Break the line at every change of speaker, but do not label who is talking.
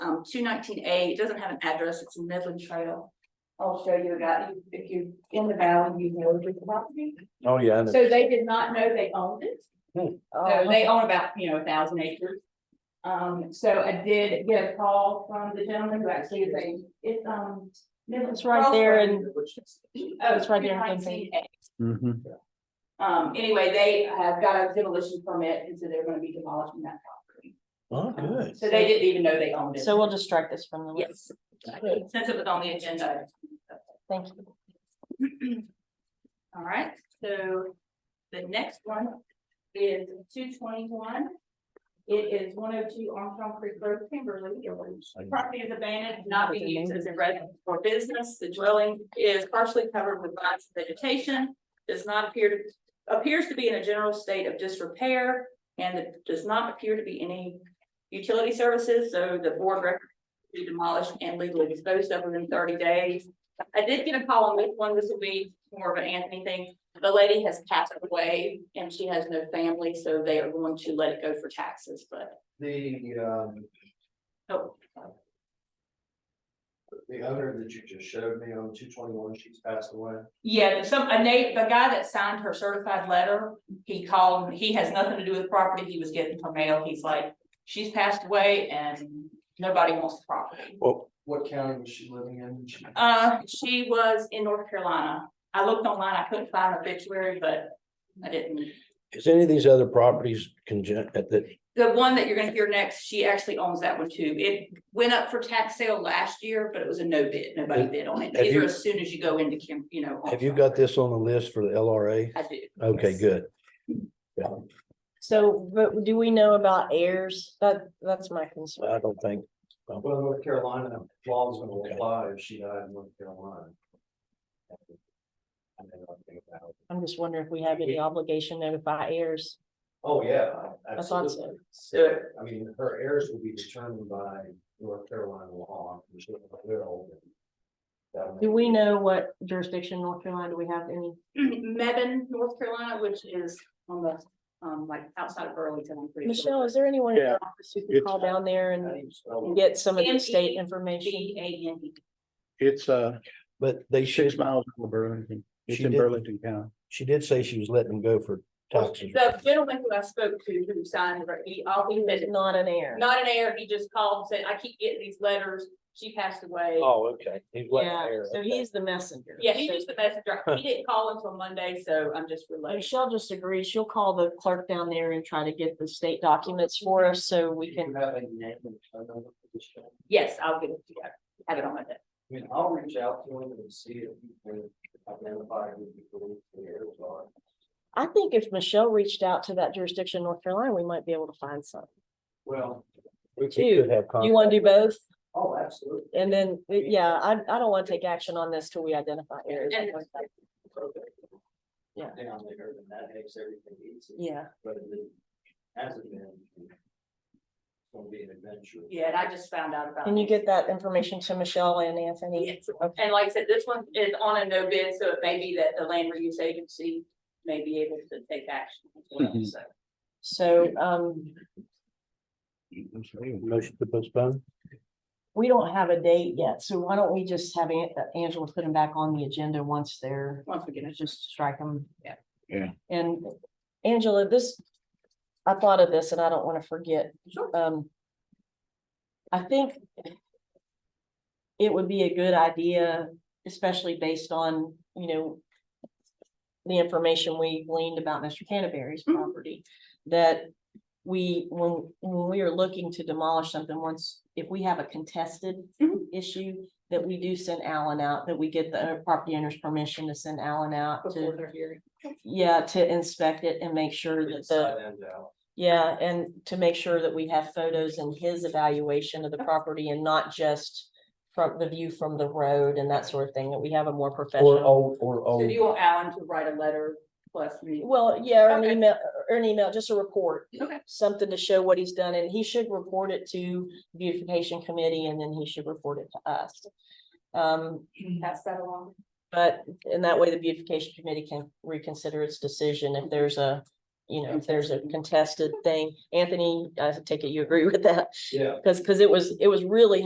um, two nineteen A, it doesn't have an address, it's a Midland Trail. I'll show you that, if you're in the valley, you know the property.
Oh, yeah. and
So they did not know they owned it. So
Oh,
they own about, you know, a thousand acres. Um, so I did get a call from the gentleman who actually is a, it's, um.
It's right there in-
Oh,
it's right there in Kansas.
219A.
Mhm.
Um, anyway, they have got a demolition permit, and so they're gonna be demolishing that property.
Um,
Oh, good.
So they didn't even know they owned it.
So we'll just strike this from the list.
Yes. Since it was on the agenda.
Thank you.
All right, so the next one is two twenty-one. It is one oh two Armstrong Creek Road, Kimberly. Property is abandoned, not being used as a residence or business. The dwelling is partially covered with lots of vegetation. Does not appear to, appears to be in a general state of disrepair. And it does not appear to be any utility services, so the board record to demolish and legally disposed of within thirty days. I did get a call on this one, this will be more of an Anthony thing. The lady has passed away and she has no family, so they are going to let it go for taxes, but,
The, um,
oh,
the owner that you just showed me on two twenty-one, she's passed away.
yeah, there's some, a Nate, the guy that signed her certified letter, he called, he has nothing to do with property, he was getting her mail, he's like, she's passed away and nobody wants the property.
Well,
What county was she living in? She-
Uh, she was in North Carolina. I looked online, I couldn't find an obituary, but I didn't.
is any of these other properties congen- at that,
The one that you're gonna hear next, she actually owns that one too. It went up for tax sale last year, but it was a no bid. Nobody
Have-
bid on it.
have
These are
you-
as soon as you go into Kim, you know.
have you got this on the list for the LRA?
I do.
Okay,
Yes.
good.
So, but do we know about heirs? That, that's my concern.
I don't think,
Well, North Carolina, law's gonna apply if she died in North Carolina. I mean, I think about-
I'm just wondering if we have any obligation to notify heirs.
Oh, yeah.
I thought
absolutely.
so.
So
I mean, her heirs will be determined by North Carolina law. and she'll have their own. That
Do
would-
we know what jurisdiction North Carolina, do we have any?
Mebane, North Carolina, which is on the, um, like outside of Burlington, I'm pretty sure.
Michelle, is there anyone in
Yeah.
the office who can call down there
How do
and
you spell it?
get some of the
Sandy
state information?
B A N E.
It's uh
but they should,
six miles from Burlington. It's
She
in
did-
Burlington County.
she did say she was letting them go for taxes.
The gentleman who I spoke to who signed, the- he, all he said,
Not an heir.
not an heir, he just called and said, I keep getting these letters. She passed away.
Oh, okay. He's letting
Yeah,
her.
so he's the messenger.
Yeah, he's
So
just the messenger. He didn't call until Monday, so I'm just relaying.
Michelle just agreed. She'll call the clerk down there and try to get the state documents for us so
Do
we
you
can.
Have a name and phone number for this guy?
Yes, I'll get it together. Have it on Monday.
I mean, I'll reach out to him and see if he can identify who the police affairs are.
I think if Michelle reached out to that jurisdiction, in North Carolina, we might be able to find some.
Well,
We could
Two.
have
You
con-
want to do both?
oh, absolutely.
And then, uh, yeah, I, I don't want to take action on this till we identify areas.
And-
Yeah.
Down there, then that makes everything easy.
Yeah,
But if it hasn't been. It's gonna be an adventure.
Yeah, and I just found out about.
can you
it.
get that information to Michelle and Anthony?
Yes. And like I said, this one is on a no bid, so it may be that the land reuse agency may be able to take action. as well,
Mhm.
So
So, um,
Motion to postpone?
we don't have a date yet, so why don't we just have An- uh, Angela put them back on the agenda once they're,
once we get
you know,
it.
just strike them.
Yeah.
Yeah.
And Angela, this, I thought of this and I don't want to forget.
Sure.
um. I think. It would be a good idea, especially based on, you know. The information we gleaned about Mr. Canterbury's
Mhm.
property, that we, when, when we are looking to demolish something, once, if we have a contested.
Mhm.
Issue, that we do send Alan out, that we get the owner- property owner's permission to send Alan out
Before
to,
they're here.
yeah, to inspect it and make sure that the.
Inside and out.
Yeah, and to make sure that we have photos and his evaluation of the property and not just from the view from the road and that sort of thing, that we have a more
Or
professional.
old, or
So
Oh.
do
old.
you want Alan to write a letter plus me?
Well, yeah, or an
Okay.
email, or an email, just a report,
Okay.
something to show what he's done, and he should report it to beautification committee, and then he should report it to us. Um,
Pass that along.
but, and that way the beautification committee can reconsider its decision if there's a, you know, if there's a contested thing. Anthony, I take it you agree with that?
Yeah,
Cause, cause it was, it was really